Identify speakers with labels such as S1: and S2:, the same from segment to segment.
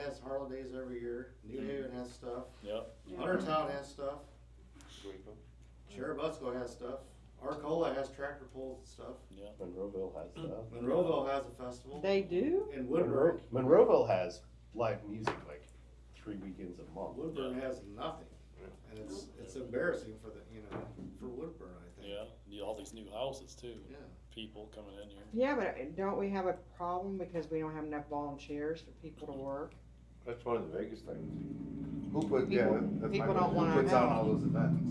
S1: has holidays every year, New Haven has stuff,
S2: Yep.
S1: Huntertown has stuff,
S3: Greenville.
S1: Cherubusco has stuff, Arcola has tractor pulls and stuff,
S2: Yep.
S3: Monroeville has uh, stuff.
S1: Monroeville has a festival,
S4: They do?
S1: and Woodburn,
S3: Monroeville has live music like three weekends a month.
S1: Woodburn has nothing. And it's, it's embarrassing for the, you know, for Woodburn, I think.
S2: Yeah. You- All these new houses too.
S1: Yeah.
S2: People coming in here.
S4: Yeah, but uh, don't we have a problem because we don't have enough volunteers for people to work?
S5: That's one of the biggest things.
S6: Who put, yeah,
S4: People-
S6: that's my
S4: people
S6: question.
S4: don't wanna
S6: Who puts on
S4: know.
S6: all those events?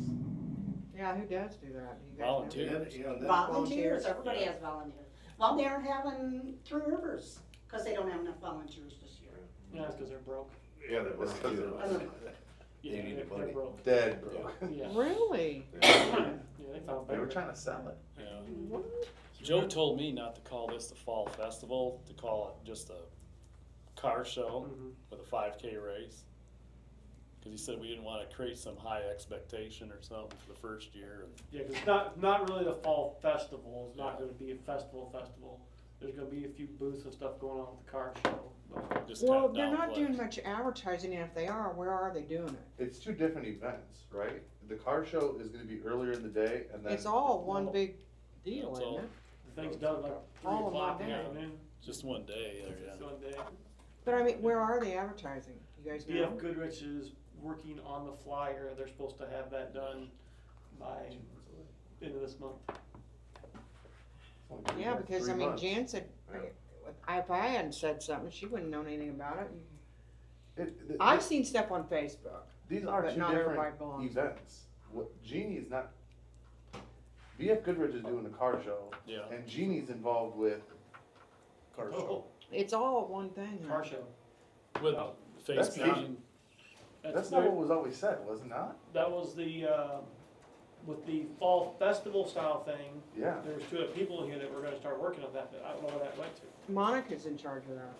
S4: Yeah, who does do that? Do you guys know?
S2: Volunteer.
S1: And, you know, that,
S7: Volunteers,
S4: Volunteers.
S7: everybody has volunteers. Well, they're having Three Rivers, cause they don't have enough volunteers this year.
S8: Yeah, it's because they're broke.
S5: Yeah, that was.
S8: Yeah,
S6: need the
S8: they're-
S6: money.
S8: They're broke.
S6: Dead, bro.
S8: Yeah,
S4: Really?
S8: yeah, they found
S6: They were
S8: better.
S6: trying to sell it.
S2: Yeah.
S4: What?
S2: Joe told me not to call this the fall festival, to call it just a car show
S8: Mhm.
S2: with a 5K race. Because he said we didn't want to create some high expectation or something for the first year. And
S8: Yeah, 'cause it's not, not really the fall festival, it's not gonna be a festival festival. There's gonna be a few booths and stuff going on with the car show, but
S2: just
S4: Well,
S2: kind of
S4: they're not
S2: downplay.
S4: doing much advertising, and if they are, where are they doing it?
S6: It's two different events, right? The car show is gonna be earlier in the day and then.
S4: It's all one big deal,
S2: That's all.
S4: isn't it?
S8: the thing's done like three
S4: Oh, my
S8: o'clock in the
S2: God.
S8: afternoon,
S2: Just one day. There, yeah.
S8: Sunday.
S4: But I mean, where are they advertising? You guys know?
S8: BF Goodrich is working on the flyer, they're supposed to have that done by end of this month.
S4: Yeah, because I
S6: Three
S4: mean,
S6: months.
S4: Jan said,
S6: Yeah.
S4: I- if I hadn't said something, she wouldn't known anything about it.
S6: It- th-
S4: I've
S6: th-
S4: seen stuff on Facebook.
S6: These are
S4: but
S6: two
S4: not everybody
S6: different
S4: belongs.
S6: events. What, Genie's not, BF Goodrich is doing the car show
S2: Yeah. Oh.
S6: and Genie's involved with car show.
S4: It's all one thing. huh?
S8: Oh, Car show.
S2: With
S8: No.
S2: face
S6: That's not-
S2: painting.
S6: That's not what was always said, was it not?
S8: That was the, uh, with the fall festival style thing,
S6: Yeah.
S8: there was two other people in here that were gonna start working on that, but I don't know where that went to.
S4: Monica's in charge of that.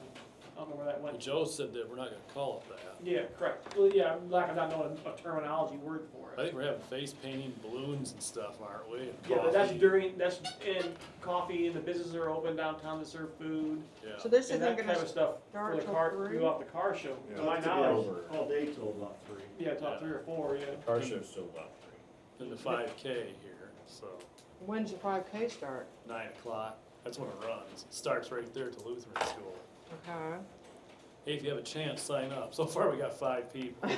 S8: I don't know where that
S2: Well,
S8: went.
S2: Joe said that we're not going to call it that.
S8: Yeah, correct. Well, yeah, I'm like, I'm not knowing a terminology word for
S2: I
S8: it.
S2: think we're having face painting, balloons and stuff, aren't we? And
S8: Yeah, but that's
S2: coffee.
S8: during, that's in coffee, and the businesses are open downtown to serve food,
S2: Yeah.
S4: So this isn't
S8: and that kind
S4: gonna
S8: of stuff
S4: start
S8: for the
S4: till
S8: car,
S4: three?
S8: throughout the car show. To my
S1: It's gonna be
S8: knowledge,
S1: all- All day till about three.
S8: yeah, top
S2: Yeah.
S8: three or four, yeah.
S5: Car show's still up.
S2: in the 5K here, so
S4: When's the five K start?
S2: 9 o'clock. That's when it runs. It starts right there to Lutheran School.
S4: Okay.
S2: Hey, if you have a chance, sign up. So far, we got five people.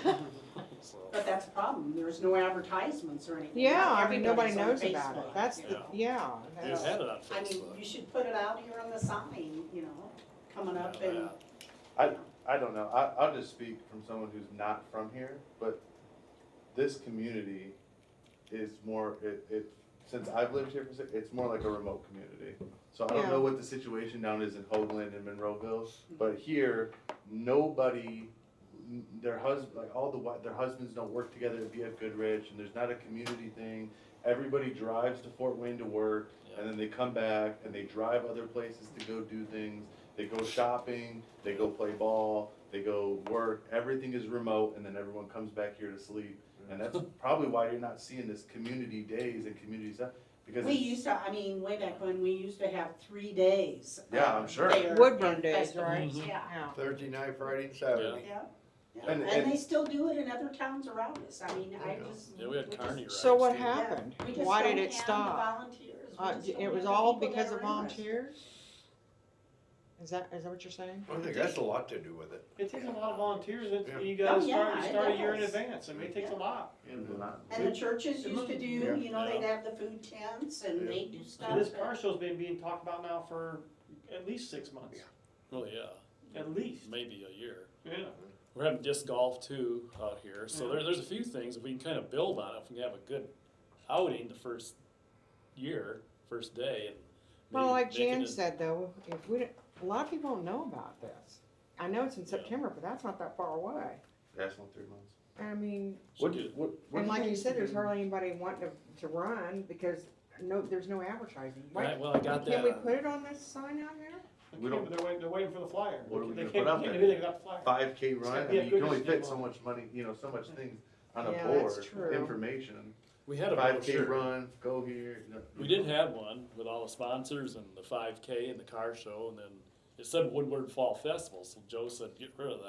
S2: so,
S7: But that's a problem, there's no advertisements or anything.
S4: Yeah,
S7: Not
S4: I mean, nobody knows
S7: everybody's on
S4: about it.
S7: Facebook,
S4: That's
S7: you
S4: the,
S7: know.
S4: yeah.
S2: we
S4: that's-
S2: just had it on
S7: I mean,
S2: Facebook.
S7: you should put it out here on the sign, you know, coming up
S2: Yeah,
S7: and,
S2: that.
S6: I, I don't know. I, I'll just speak from someone who's not from here, but this community is more, it, it, since I've lived here for six, it's more like a remote community. So I don't know
S4: Yeah.
S6: what the situation down is in Hoagland and Monroeville, but here, nobody, n- their husband, like all the, wi- their husbands don't work together at BF Goodrich and there's not a community thing. Everybody drives to Fort Wayne to work and then they come back and they drive other places to go do things. They go shopping, they go play ball, they go work. Everything is remote, and then everyone comes back here to sleep. And that's probably why you're not seeing this community days and community stuff because
S7: we
S6: it's-
S7: used to, I mean, way back when, we used to have three days.
S6: Yeah,
S7: of
S6: I'm sure.
S7: fair
S4: Woodburn days,
S7: festivals,
S2: right? Mhm.
S7: Yeah,
S4: Yeah.
S6: Thursday night, Friday, and
S2: Saturday.
S7: yeah. Yeah.
S6: And-
S7: And they
S6: and-
S7: still do it in other towns around us, I mean, I just.
S2: Yeah, we had
S7: just-
S2: Carney rides.
S4: So what
S2: too.
S7: yeah,
S4: happened?
S7: we just
S4: Why
S7: don't
S4: did it
S7: have the
S4: stop?
S7: volunteers. We
S4: Uh,
S7: just
S4: d-
S7: don't
S4: it was
S7: have the
S4: all
S7: people
S4: because
S7: that
S4: of
S7: are interested.
S4: volunteers? Is that, is that what you're saying?
S5: I think that's a lot to do with it.
S8: It takes a lot of volunteers,
S5: Yeah.
S8: it, you
S7: Oh,
S8: gotta
S7: yeah,
S8: start,
S7: it
S8: start a year in
S7: does.
S8: advance, I mean, it takes a
S7: Yeah.
S8: lot.
S1: And
S6: Well,
S1: uh,
S6: not-
S7: And the churches used to do,
S5: Yeah.
S7: you know, they'd
S2: Yeah.
S7: have the food tents and
S5: Yeah.
S7: they do stuff.
S8: And this
S7: but-
S8: car show's been being talked about now for at least six months,
S2: Well, Oh, yeah,
S8: at least,
S2: maybe a year.
S8: yeah.
S2: We're having disc golf too out here, so there, there's a few things if we can kind of build on. it, If we can have a good outing the first year, first day, and
S4: Well,
S2: maybe
S4: like
S2: make it
S4: Jan
S2: a-
S4: said though, if we, don't- a lot of people don't know about this. I know it's in
S2: Yeah.
S4: September, but that's not that far away.
S6: That's not three months.
S4: I mean,
S6: What,
S2: Should
S6: what, what
S4: And
S6: do
S4: like you
S6: think
S4: said, there's
S6: the-
S4: hardly anybody wanting to, to run because no, there's no advertising.
S2: Right,
S4: Why,
S2: well, I got
S4: can't
S2: that.
S4: we
S2: on-
S4: put it on this sign out here?
S8: They
S6: We
S8: can't-
S6: don't-
S8: They're waiting, they're waiting for the flyer.
S6: What are we
S8: They
S6: gonna
S8: can't-
S6: put up
S8: they
S6: there?
S8: can't do anything without the flyer.
S6: five K
S8: Yeah,
S6: run? I mean, you can only
S8: Goodrich
S6: fit
S8: did
S6: so
S8: one.
S6: much money, you know, so much things on a
S4: Yeah,
S6: board,
S4: that's true.
S6: information.
S2: We had a
S6: Five K
S2: brochure.
S6: run, go here. you know.
S2: We did have one with all the sponsors and the 5K and the car show, and then it said Woodward Fall Festival. So Joe said, "Get rid of that."